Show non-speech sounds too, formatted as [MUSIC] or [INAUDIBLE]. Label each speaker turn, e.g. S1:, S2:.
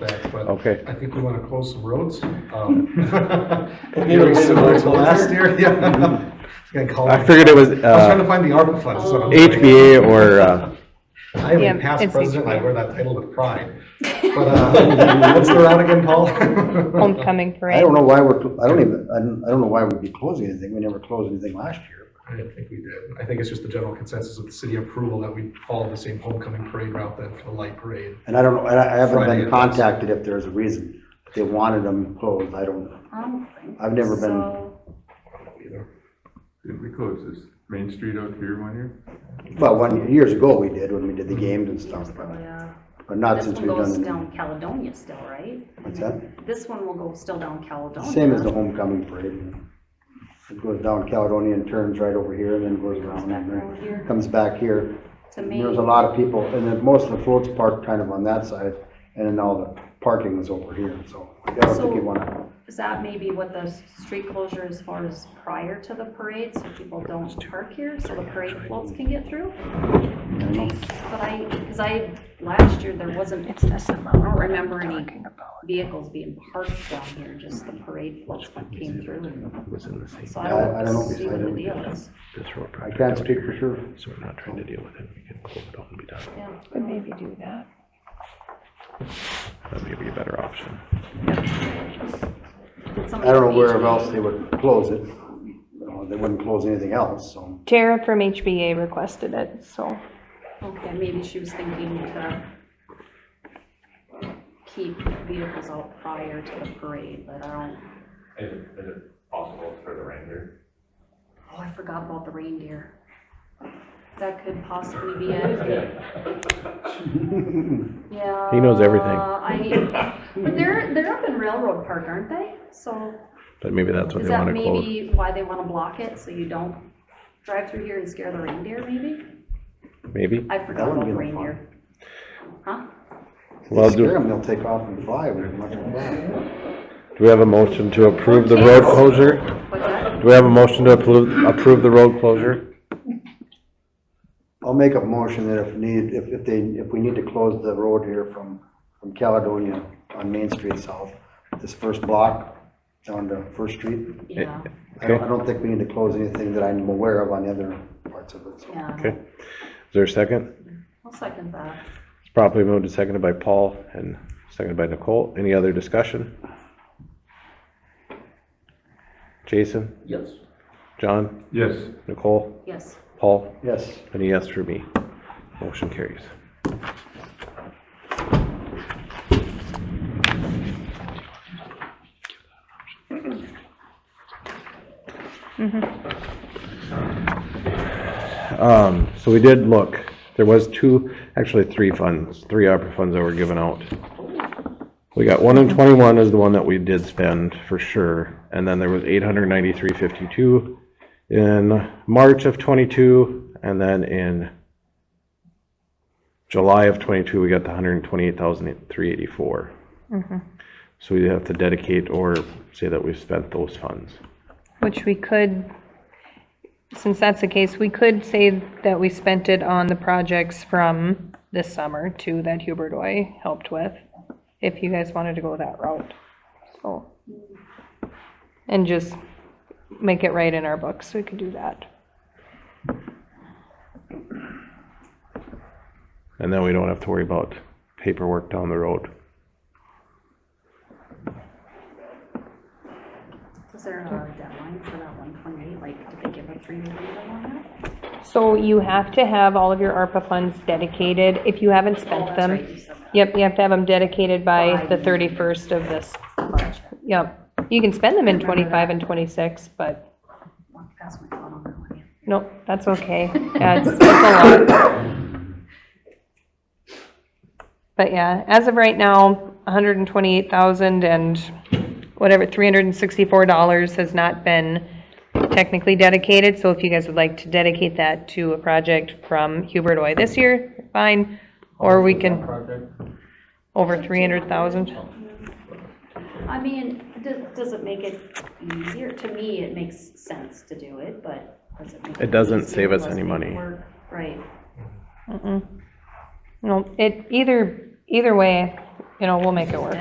S1: back, but
S2: Okay.
S1: I think we want to close some roads. [LAUGHS] um,
S3: Very similar to last
S1: year, [LAUGHS] yeah. Gonna call
S2: Mm-hmm. I
S1: it-
S2: figured it was,
S1: I was trying to
S2: uh,
S1: find the ARPA funds. that's what I'm doing.
S2: HBA or, uh,
S1: I am
S4: Yeah,
S1: a past
S4: it's
S1: president, I
S4: HBA.
S1: wear that title with
S4: [LAUGHS]
S1: pride. But, uh, what's the route again, Paul?
S4: Homecoming
S3: [LAUGHS] I
S4: parade.
S3: don't know why we're, cl- I don't even, I don't, I don't know why we'd be closing anything. We never closed anything last year.
S1: [LAUGHS] I don't think we did. I think it's just the general consensus of the city approval that we follow the same homecoming parade route then for the light parade.
S3: And I don't know, and I I haven't
S1: Friday
S3: been
S1: it was.
S3: contacted if there's a reason. If They wanted them closed. I don't know.
S5: I don't think
S3: I've never been-
S5: so.
S1: I don't know either.
S6: Did we close this Main Street out here one year?
S3: Well, one, years ago we did when we did the games and stuff, but,
S5: Yeah.
S3: but not
S5: This
S3: since
S5: one
S3: we've
S5: goes
S3: done. them.
S5: down Caledonia still, right?
S3: What's that?
S5: This one will go still down Caledonia.
S3: Same as the homecoming parade. It goes down Caledonia and turns right over here and then goes around
S5: back
S3: and
S5: around here.
S3: then comes back here.
S5: To me.
S3: There's a lot of people, and then most of the floats parked kind of on that side, and then all the parking was over here, so I don't think you
S5: So-
S3: wanna,
S5: Is that maybe what the street closure as far as prior to the parade, so people don't park here, so the parade floats can get through?
S3: I don't know.
S5: But I, because I, last year, there wasn't, I don't remember any vehicles being parked down here, just the parade floats that came through.
S2: was in the same,
S5: So I
S3: I- I don't know,
S5: don't see
S3: because I
S5: what the
S3: didn't-
S5: deal is.
S2: this road
S3: I
S2: project
S3: can't
S2: out
S3: speak
S2: here,
S3: for sure.
S2: So we're not trying to deal with it, we can close it all and be done.
S5: Yeah.
S4: But maybe do that.
S2: That may be a better option.
S3: I don't know where else they would close it. Uh, They wouldn't close anything else, so.
S4: Tara from HBA requested it, so
S5: Okay, maybe she was thinking to keep vehicles out prior to the parade, but I don't,
S7: Is it, is it possible for the reindeer?
S5: oh, I forgot about the reindeer. That could possibly
S7: [LAUGHS]
S5: be it. Yeah.
S2: He knows everything.
S5: I, but they're, they're up in Railroad Park, aren't they? So
S2: But maybe that's what
S5: is
S2: they
S5: that
S2: wanna close.
S5: maybe why they want to block it, so you don't drive through here and scare the reindeer, maybe?
S2: Maybe?
S5: I forgot
S3: wouldn't
S5: about
S3: be
S5: the
S3: no fun.
S5: reindeer. Huh?
S2: Well,
S3: If
S2: do,
S3: you scare
S2: do
S3: them, they'll take off and fly. We're not gonna fly.
S2: we have a motion to approve the road closure?
S5: What's that?
S2: Do we have a motion to approve, approve the road closure?
S3: I'll make a motion that if need, if, if they, if we need to close the road here from, from Caledonia on Main Street South, this first block down to First Street,
S5: Yeah,
S3: I don't,
S2: Okay.
S3: I don't think we need to close anything that I'm aware of on the other parts of it, so.
S5: yeah.
S2: Okay. Is there a second?
S5: I'll second that.
S2: It's properly moved and seconded by Paul and seconded by Nicole. Any other discussion? Jason,
S1: Yes.
S2: John,
S6: Yes,
S2: Nicole,
S5: Yes.
S2: Paul,
S3: Yes,
S2: and a yes for me. Motion carries. Um, so we did look, there was two, actually three funds, three ARPA funds that were given out. We got one in twenty-one is the one that we did spend for sure, and then there was eight hundred ninety-three fifty-two in March of twenty-two, and then in July of twenty-two, we got the hundred and twenty-eight thousand three eighty-four. So we have to dedicate or say that we've spent those funds.
S4: Which we could, since that's the case, we could say that we spent it on the projects from this summer too, that Hubert Oy helped with, if you guys wanted to go that route, so. And just make it right in our books, we could do that.
S2: And then we don't have to worry about paperwork down the road.
S5: Is there a deadline for that one twenty-eight, like, did they give a three-year deadline on that?
S4: So you have to have all of your ARPA funds dedicated, if you haven't
S5: Oh,
S4: spent
S5: that's
S4: them.
S5: right, you said that.
S4: Yep, you have to have them dedicated by
S5: By-
S4: the thirty-first of this March. Yep. You can spend them in
S5: Remember
S4: twenty-five and twenty-six, but
S5: Walked past my phone on that one, yeah.
S4: nope, that's okay. Yeah, it's- it's a lot. But yeah, as of right now, hundred and twenty-eight thousand and whatever, three hundred and sixty-four dollars has not been technically dedicated. So if you guys would like to dedicate that to a project from Hubert Oy this year, fine. Or we can,
S1: Project.
S4: over three hundred thousand.
S5: I mean, does, does it make it easier? To me, it makes sense to do it, but does it make?
S2: It doesn't
S5: easier?
S2: save us
S5: Less
S2: any money.
S5: paperwork? Right.
S4: Mm-mm. No, it, either, either way, you know, we'll make it work.